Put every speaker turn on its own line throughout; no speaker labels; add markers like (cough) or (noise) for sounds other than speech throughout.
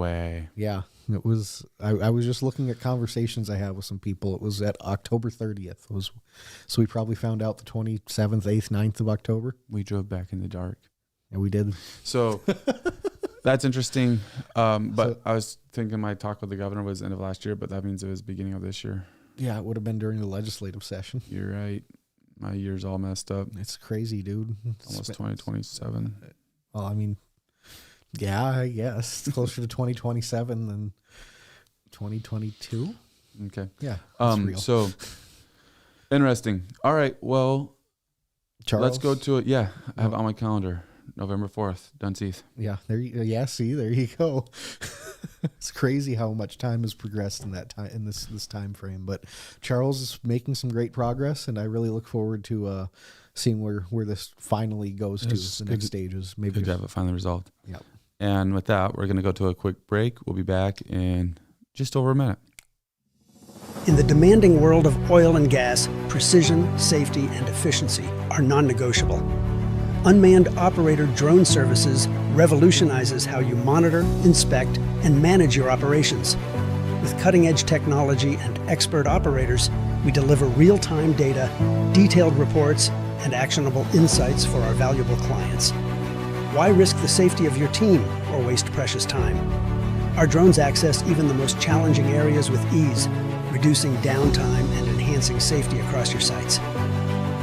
way.
Yeah, it was. I, I was just looking at conversations I had with some people. It was at October 30th. Was so we probably found out the 27th, 8th, 9th of October,
We drove back in the dark.
and we did.
So that's interesting. Um, but
So-
I was thinking my talk with the governor was end of last year, but that means it was beginning of this year.
(laughs) Yeah, it would have been during the legislative session.
You're right. My year's all messed up.
It's crazy, dude. It's
Almost
been-
2027.
Well, I mean, yeah, I guess it's closer to 2027 than 2022.
Okay.
Yeah, that's
Um,
real.
so interesting. All right. Well,
Charles,
let's go to it. Yeah. I have it on my calendar November 4th, Dunseith.
Yeah, there. You, yeah, see, there you go. (laughs) it's crazy how much time has progressed in that time in this this time frame. But Charles is making some great progress, and I really look forward to uh, seeing where where this finally goes to
It's
the
good-
next stages. Maybe
Good to have it finally resolved.
Yep.
And with that, we're going to go to a quick break. We'll be back in just over a minute.
In the demanding world of oil and gas, precision, safety, and efficiency are non negotiable. Unmanned operator drone services revolutionizes how you monitor, inspect, and manage your operations. With cutting edge technology and expert operators, we deliver real time data, detailed reports, and actionable insights for our valuable clients. Why risk the safety of your team or waste precious time? Our drones access even the most challenging areas with ease, reducing downtime and enhancing safety across your sites.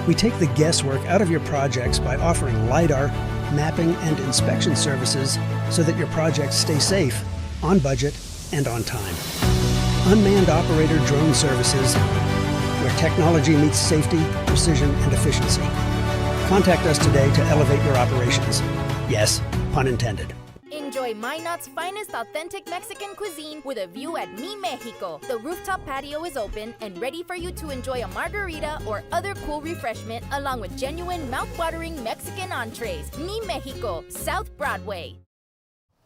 We take the guesswork out of your projects by offering LiDAR, mapping, and inspection services so that your projects stay safe, on budget, and on time. Unmanned Operator Drone Services, where technology meets safety, precision, and efficiency. Contact us today to elevate your operations. Yes, pun intended.
Enjoy Minot's finest authentic Mexican cuisine with a view at Mi Mexico. The rooftop patio is open and ready for you to enjoy a margarita or other cool refreshment along with genuine mouth-watering Mexican entrees. Mi Mexico, South Broadway.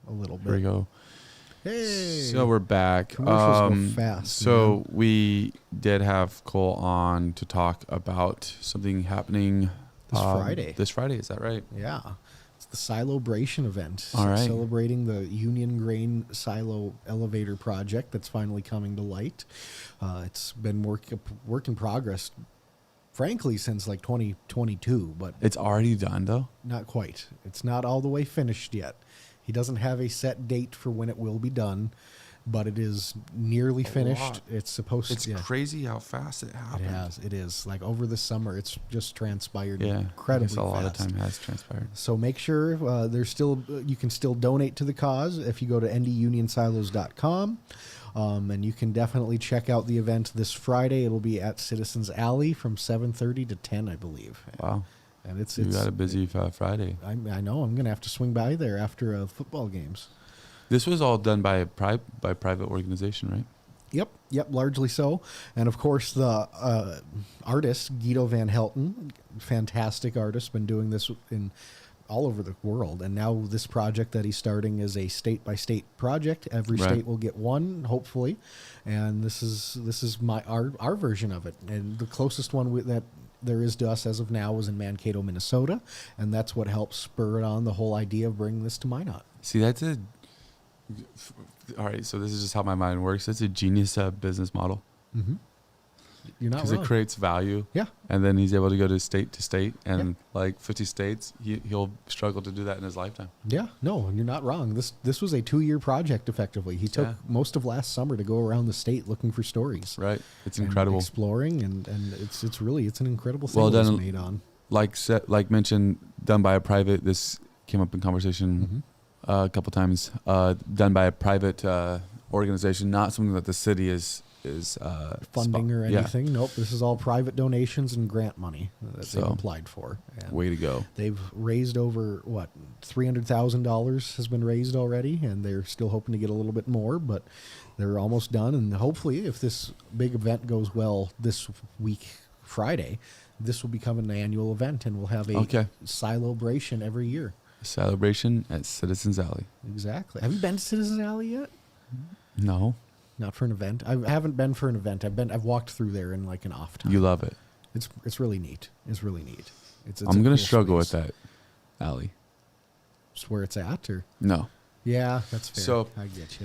a little
There we
bit.
go.
Hey,
So we're back.
Commercials go
Um,
fast,
So we did have Cole on to talk about something happening um,
This Friday.
This Friday, is that right?
yeah. It's the Silobration event.
All right.
Celebrating the Union Grain Silo Elevator project that's finally coming to light. Uh, it's been work work in progress, frankly, since like 2022, but
It's already done though.
not quite. It's not all the way finished yet. He doesn't have a set date for when it will be done, but it is nearly finished.
lot.
It's supposed
It's
to. yeah.
crazy how fast it
It
happened.
has. It is like over the summer. It's just transpired
Yeah.
incredibly
I guess a lot
fast.
of time has transpired.
So make sure uh, there's still you can still donate to the cause if you go to ndunionsilos.com. Um, and you can definitely check out the event this Friday. It'll be at Citizens Alley from 7:30 to 10, I believe.
Wow.
And it's
We
it's
got a busy uh, Friday.
I, I know I'm gonna have to swing by there after uh, football games.
This was all done by a pri- by a private organization, right?
Yep, yep, largely so. And of course, the uh, artist Guido Van Helten, fantastic artist, been doing this in all over the world. And now this project that he's starting is a state by state project. Every
Right.
state will get one, hopefully. And this is this is my our our version of it. And the closest one with that there is to us as of now is in Mankato, Minnesota, and that's what helps spur on the whole idea of bringing this to Minot.
See, that's a. All right, so this is just how my mind works. That's a genius uh, business model
Mm-hmm. You're not
because
wrong.
it creates value.
yeah.
and then he's able to go to state to state and like 50 states he, he'll struggle to do that in his lifetime
Yeah, no, you're not wrong. This this was a two year project. Effectively, he took
Yeah.
most of last summer to go around the state looking for stories.
right it's
and
incredible
exploring, and and it's it's really it's an incredible thing
Well
that was
done.
made on.
like set, like mentioned done by a private this came up in conversation
Mm-hmm.
uh, a couple times uh, done by a private uh, organization not something that the city is is uh,
Funding
spo-
or
yeah.
anything? Nope. This is all private donations and grant money that
So-
they've applied for. And
way to go
They've raised over what three hundred thousand dollars has been raised already, and they're still hoping to get a little bit more, but they're almost done. And hopefully, if this big event goes well this week, Friday, this will become an annual event, and we'll have a
Okay.
celebration every year.
celebration at citizens alley
Exactly. Have you been to Citizen Alley yet?
no
Not for an event. I haven't been for an event. I've been. I've walked through there in like an off time.
you love it
it's it's really neat. It's really neat. It's, it's
i'm
a
gonna
cool
struggle
space.
with that alley
It's where it's at, or
no
Yeah, that's fair.
So-
I get you.